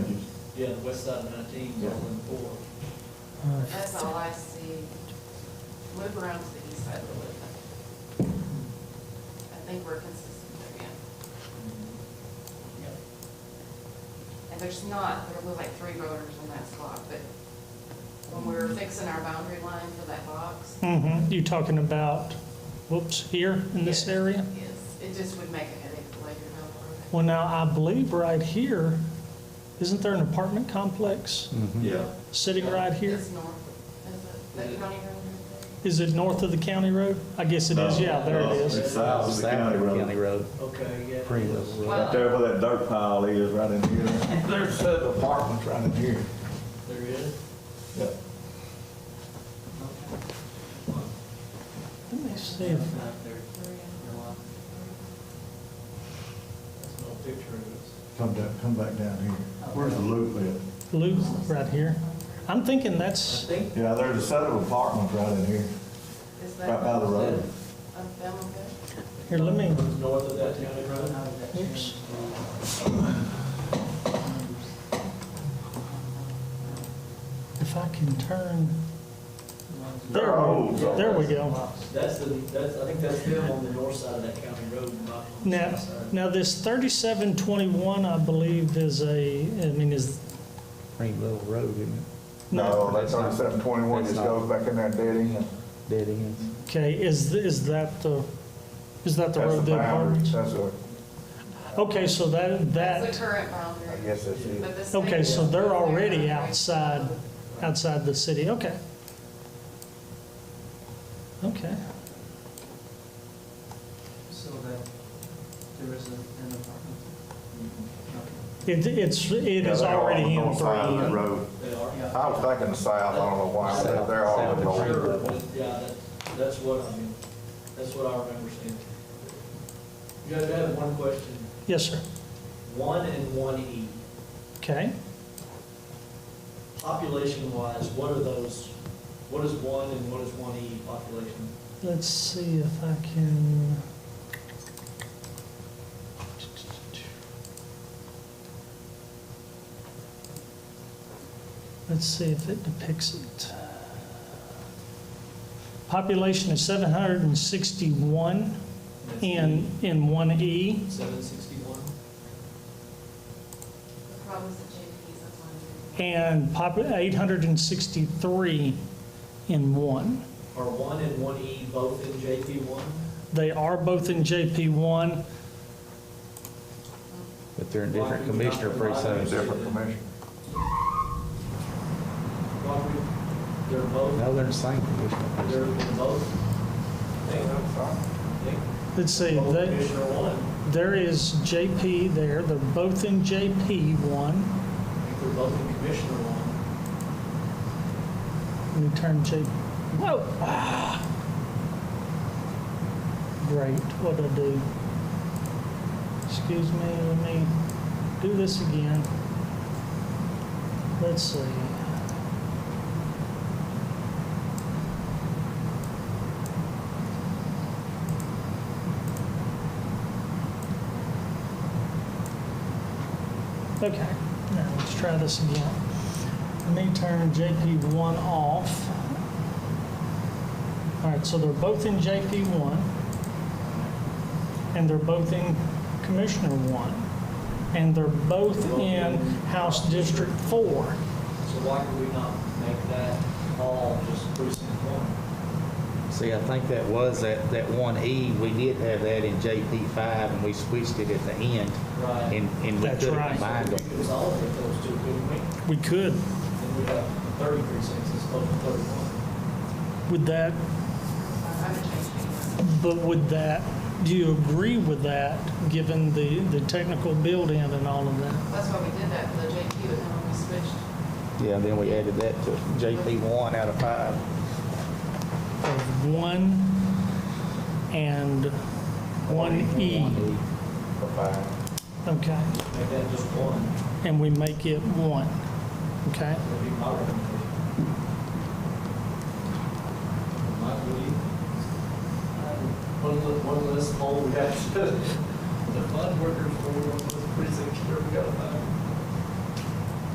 Yeah, the west side of nineteen, Yeah. Berlin four. Uh, That's all I see. Move around to the east side a little bit. I think we're consistent there, yeah. And there's not, there was like three voters in that spot, but when we were fixing our boundary line for that box, mhm. You talking about, whoops, here in this Yeah. area? yes, it just would make a headache later down the road. Well, now, I believe right here, isn't there an apartment complex Yeah. sitting right here? It's north, is it, that county road? Is it north of the county road? I guess it is, yeah, there it is. It's south of the county road. Road. Okay, yeah. Pretty little road. Right there where that dirt pile is, right in here. There's several apartments right in here. There is. Yeah. Let me see if, Not there. No, I- That's no picture of us. Come down, come back down here. Where's the loop at? Lou, right here. I'm thinking that's, I think, Yeah, there's a set of apartments right in here, Is that? right by the road. Of them, okay? here, let me, it was north of that county road. oops. If I can turn, there, we- there we go. That's the, that's, I think that's them on the north side of that county road, not on the Now, south side. now this 3721, I believe, is a, I mean, is, Pretty little road, isn't it? no, No, that thirty-seven twenty-one just goes back in that dead end. Dead ends. okay, is, is that the, is that the That's road the that boundary, apartments? that's a, Okay, so that, That's the that, current I boundary. guess that's it. but this okay, thing- so they're already Yeah. outside, outside the city, okay. Okay, So that there is a- an apartment. Okay. it, it's, it Yeah, is they're all on already the in north side of the for road. They are. Yeah. I was thinking the south, I don't know why, but they're all on the South. north. Sure, but, yeah, that, that's what I mean, that's what I remember seeing. Judge, I have one question. Yes, sir, One and one E, okay. population-wise, what are those, what is one and what is one E population? Let's see if I can. Let's see if it depicts it. Population is 761 in, in E, 1E. Seven sixty-one? The problem is the JP's up on and pop- 863 in 1. Are one and one E both in JP one? They are both in JP1. But they're in different commissioner precincts. Different commission. Why would- They're both, No, they're in the same commissioner they're precinct. in both? They- they- Let's see, Both they, Commissioner one, There is JP there, they're both in JP one. I think they're both in Commissioner one. Let me turn JP, whoa! ah. Great, what'd I do? Excuse me, let me do this again. Let's see. Okay, now let's try this again. Let me turn JP1 off. All right, so they're both in JP1, and they're both in Commissioner 1, and they're both in House District 4. So why could we not make that all just precinct one? See, I think that was that, that one E, we did have that in JP five and we switched it at the end. Right. And, and we That's could right. have combined We them. could consolidate those two, couldn't we? We could, Then we have thirty precincts instead of thirty-one. would that, the, on the JP. but would that, do you agree with that, given the, the technical build-in and all of that? That's why we did that for the JQ, and then when we switched, Yeah, then we added that to JP one out of five. Of 1 and 1E, One E. Bye-bye. okay? Make that just one, and we make it one, okay? would be my recommendation. Mike, would you? One, le- one less poll, we have to, the fund workers, for one less precinct, here we got to find.